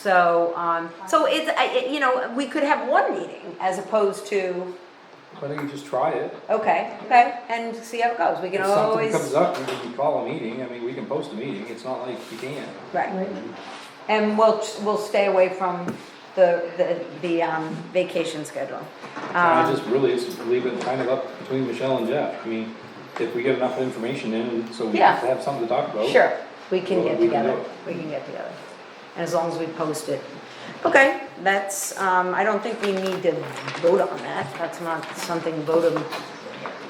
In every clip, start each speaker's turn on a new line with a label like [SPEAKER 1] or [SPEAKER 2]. [SPEAKER 1] So, um, so it's, I- it, you know, we could have one meeting as opposed to,
[SPEAKER 2] I think you just try it.
[SPEAKER 1] okay, okay, and see how it goes. We can
[SPEAKER 2] If something
[SPEAKER 1] always,
[SPEAKER 2] comes up, we can call a meeting, I mean, we can post a meeting, it's not like you can't.
[SPEAKER 1] right. And we'll, we'll stay away from the, the, the, um, vacation schedule.
[SPEAKER 2] And I
[SPEAKER 1] Um,
[SPEAKER 2] just really, just leave it kind of up between Michelle and Jeff, I mean, if we get enough information in, so we
[SPEAKER 1] Yeah.
[SPEAKER 2] have to have something to talk about.
[SPEAKER 1] Sure, we can
[SPEAKER 2] Well,
[SPEAKER 1] get
[SPEAKER 2] we can
[SPEAKER 1] together,
[SPEAKER 2] do
[SPEAKER 1] we can get together, and as long as we post it. Okay, that's, um, I don't think we need to vote on that, that's not something voted.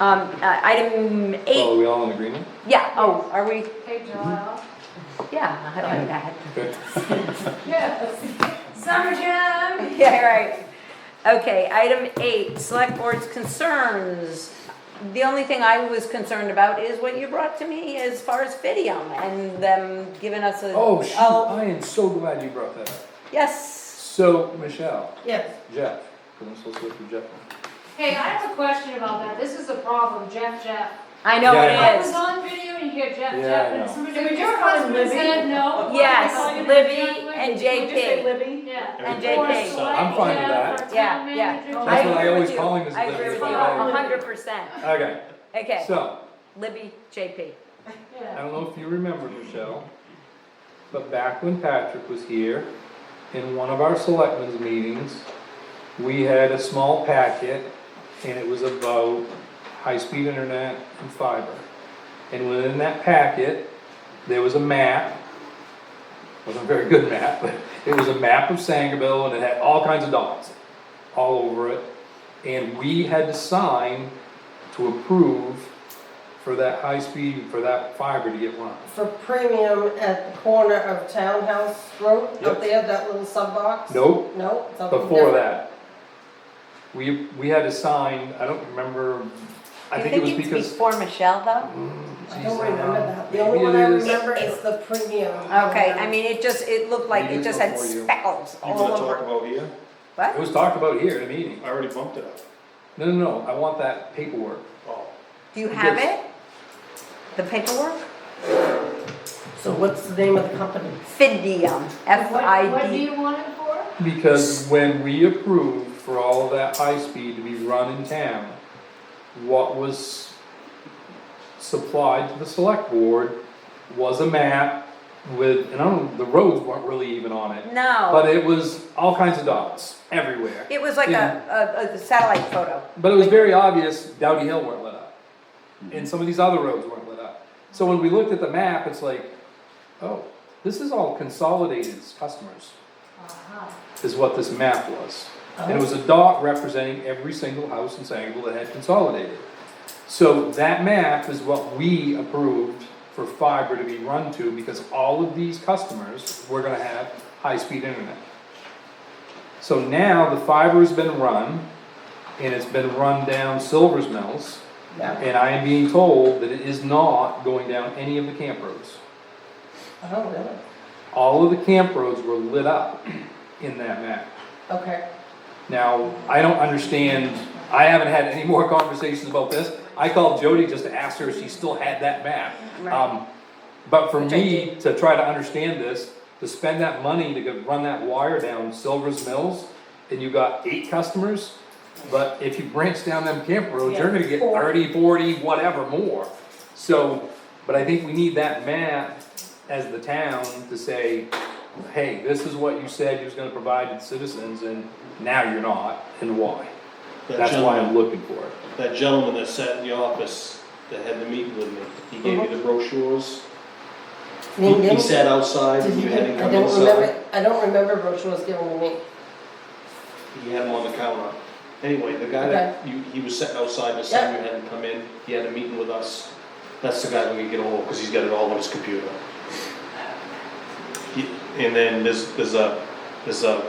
[SPEAKER 1] Um, uh, item
[SPEAKER 2] So
[SPEAKER 1] eight,
[SPEAKER 2] are we all in agreement?
[SPEAKER 1] yeah, oh, are we,
[SPEAKER 3] Hey, Joelle.
[SPEAKER 1] yeah, I like that.
[SPEAKER 2] Okay.
[SPEAKER 3] Yes. Summer jam.
[SPEAKER 1] Yeah, right. Okay, item eight, select board's concerns. The only thing I was concerned about is what you brought to me as far as Fidium and them giving us a.
[SPEAKER 2] Oh, shoot, I am so glad you brought that up.
[SPEAKER 1] Yes,
[SPEAKER 2] So, Michelle,
[SPEAKER 4] Yes.
[SPEAKER 2] Jeff, because I'm supposed to look for Jeff.
[SPEAKER 3] Hey, I have a question about that. This is a problem, Jeff, Jeff.
[SPEAKER 1] I know
[SPEAKER 2] Yeah, I
[SPEAKER 3] I
[SPEAKER 1] it
[SPEAKER 3] was
[SPEAKER 1] is.
[SPEAKER 3] on video and you hear Jeff,
[SPEAKER 2] Yeah, I
[SPEAKER 3] Jeff,
[SPEAKER 2] know.
[SPEAKER 3] and somebody
[SPEAKER 4] Can we
[SPEAKER 3] said,
[SPEAKER 4] just
[SPEAKER 3] your
[SPEAKER 4] call him
[SPEAKER 3] husband
[SPEAKER 4] Libby?
[SPEAKER 3] said no.
[SPEAKER 1] Yes, Libby and
[SPEAKER 4] Would you say
[SPEAKER 1] JP.
[SPEAKER 4] Libby?
[SPEAKER 3] Yeah.
[SPEAKER 1] And
[SPEAKER 3] Or
[SPEAKER 1] JP.
[SPEAKER 3] select
[SPEAKER 2] I'm fine with
[SPEAKER 3] Jeff
[SPEAKER 2] that.
[SPEAKER 3] or
[SPEAKER 1] Yeah,
[SPEAKER 3] town
[SPEAKER 1] yeah.
[SPEAKER 3] manager.
[SPEAKER 4] Oh,
[SPEAKER 1] I
[SPEAKER 2] That's what I
[SPEAKER 1] agree
[SPEAKER 2] always
[SPEAKER 1] with you.
[SPEAKER 2] call him is
[SPEAKER 1] I
[SPEAKER 2] Libby.
[SPEAKER 1] agree with you,
[SPEAKER 3] Yeah.
[SPEAKER 1] hundred percent.
[SPEAKER 2] Okay,
[SPEAKER 1] Okay,
[SPEAKER 2] so,
[SPEAKER 1] Libby, JP.
[SPEAKER 2] I
[SPEAKER 3] Yeah.
[SPEAKER 2] don't know if you remember, Michelle, but back when Patrick was here, in one of our selectmen's meetings, we had a small packet, and it was about high-speed internet and fiber. And within that packet, there was a map, wasn't a very good map, but it was a map of Sangerville, and it had all kinds of dots all over it. And we had to sign to approve for that high speed, for that fiber to get run.
[SPEAKER 4] For premium at the corner of Townhouse Road,
[SPEAKER 2] Yep.
[SPEAKER 4] up there, that little sub box?
[SPEAKER 2] Nope,
[SPEAKER 4] No, something
[SPEAKER 2] before
[SPEAKER 4] different.
[SPEAKER 2] that. We, we had to sign, I don't remember, I think it was because.
[SPEAKER 1] Before Michelle though?
[SPEAKER 2] Mm,
[SPEAKER 4] I don't remember that. The only
[SPEAKER 2] Maybe
[SPEAKER 4] one
[SPEAKER 2] it
[SPEAKER 4] I
[SPEAKER 2] is-
[SPEAKER 4] remember is the premium.
[SPEAKER 1] Okay, I mean, it just, it looked like
[SPEAKER 2] Maybe
[SPEAKER 1] it
[SPEAKER 2] it's
[SPEAKER 1] just had
[SPEAKER 2] before you.
[SPEAKER 1] speckles
[SPEAKER 5] You
[SPEAKER 1] all
[SPEAKER 5] wanna talk
[SPEAKER 1] over.
[SPEAKER 5] about here?
[SPEAKER 2] It
[SPEAKER 1] What?
[SPEAKER 2] was talked about here in a meeting.
[SPEAKER 5] I already bumped it up.
[SPEAKER 2] No, no, no, I want that paperwork.
[SPEAKER 5] Oh,
[SPEAKER 1] Do you have
[SPEAKER 2] Yes.
[SPEAKER 1] it? The paperwork?
[SPEAKER 4] So what's the name of the company?
[SPEAKER 1] Fidium, F
[SPEAKER 3] What-
[SPEAKER 1] I
[SPEAKER 3] What do
[SPEAKER 1] D.
[SPEAKER 3] you want it for?
[SPEAKER 2] Because when we approved for all of that high speed to be run in town, what was supplied to the select board was a map with, and I don't, the roads weren't really even on it. But
[SPEAKER 1] No,
[SPEAKER 2] it was all kinds of dots everywhere.
[SPEAKER 1] it was like a, a, a satellite photo.
[SPEAKER 2] But it was very obvious Dowdy Hill weren't lit up. And some of these other roads weren't lit up. So when we looked at the map, it's like, oh, this is all consolidated customers,
[SPEAKER 3] Uh-huh.
[SPEAKER 2] is what this map was. And it was a dot representing every single house in Sangerville that had consolidated. So that map is what we approved for fiber to be run to because all of these customers were gonna have high-speed internet. So now the fiber's been run and it's been run down Silver's Mills.
[SPEAKER 4] Yeah.
[SPEAKER 2] And I am being told that it is not going down any of the camp roads.
[SPEAKER 4] Oh, really?
[SPEAKER 2] All of the camp roads were lit up in that map.
[SPEAKER 4] Okay.
[SPEAKER 2] Now, I don't understand, I haven't had any more conversations about this. I called Jody just to ask her if she still had that map.
[SPEAKER 1] Right.
[SPEAKER 2] Um, But for
[SPEAKER 1] Which I
[SPEAKER 2] me to try to understand this, to spend that money to go run that wire down Silver's Mills, and you got eight customers, but if you branch down them camp roads, you're gonna get
[SPEAKER 4] Yeah, four.
[SPEAKER 2] thirty, forty, whatever more. So, but I think we need that map as the town to say, hey, this is what you said you was gonna provide to the citizens, and now you're not, and why?
[SPEAKER 5] that
[SPEAKER 2] That's why I'm
[SPEAKER 5] gentleman,
[SPEAKER 2] looking for it.
[SPEAKER 5] that gentleman that sat in the office that had the meeting with me, he gave
[SPEAKER 2] Uh-huh.
[SPEAKER 5] you the brochures. He
[SPEAKER 4] Name,
[SPEAKER 5] he
[SPEAKER 4] name?
[SPEAKER 5] sat outside,
[SPEAKER 4] Did
[SPEAKER 5] you
[SPEAKER 4] you,
[SPEAKER 5] had
[SPEAKER 4] get-
[SPEAKER 5] him
[SPEAKER 4] I
[SPEAKER 5] come
[SPEAKER 4] don't remember,
[SPEAKER 5] inside,
[SPEAKER 4] I don't remember brochure was given to me.
[SPEAKER 5] he had him on the counter. Anyway, the guy that, you, he was sitting outside, this time you had him come in, he had a meeting with us. That's the guy we can get ahold of, cause he's got it all on his computer. He- And then there's, there's a, there's a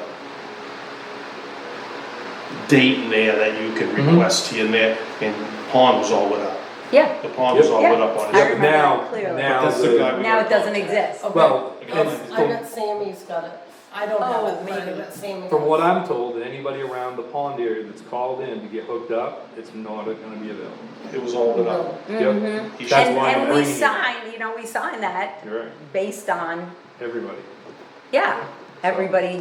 [SPEAKER 5] date in there that you can
[SPEAKER 1] Mm-hmm.
[SPEAKER 2] Mhm.
[SPEAKER 5] request here and there, and Pond was all with us.
[SPEAKER 1] Yeah,
[SPEAKER 5] The pond was all
[SPEAKER 1] Yep.
[SPEAKER 5] lit up on
[SPEAKER 1] I
[SPEAKER 5] it.
[SPEAKER 1] remember that
[SPEAKER 2] Now,
[SPEAKER 1] clearly.
[SPEAKER 2] now
[SPEAKER 5] That's the
[SPEAKER 2] the-
[SPEAKER 5] guy we
[SPEAKER 1] now it
[SPEAKER 5] got.
[SPEAKER 1] doesn't exist.
[SPEAKER 4] Okay.
[SPEAKER 2] Well,
[SPEAKER 4] I
[SPEAKER 2] it's
[SPEAKER 4] bet Sammy's got it. I don't have
[SPEAKER 1] Oh,
[SPEAKER 4] it, but I
[SPEAKER 1] maybe.
[SPEAKER 4] bet Sammy.
[SPEAKER 2] From what I'm told, that anybody around the pond area that's called in to get hooked up, it's not gonna be available.
[SPEAKER 5] It was all lit
[SPEAKER 4] No.
[SPEAKER 5] up.
[SPEAKER 2] Yep,
[SPEAKER 5] He
[SPEAKER 2] That's
[SPEAKER 5] should-
[SPEAKER 1] Mm-hmm. And,
[SPEAKER 2] why I'm
[SPEAKER 1] and we
[SPEAKER 2] bringing it.
[SPEAKER 1] signed, you know, we signed that
[SPEAKER 2] you're right,
[SPEAKER 1] based on,
[SPEAKER 2] everybody.
[SPEAKER 1] yeah, everybody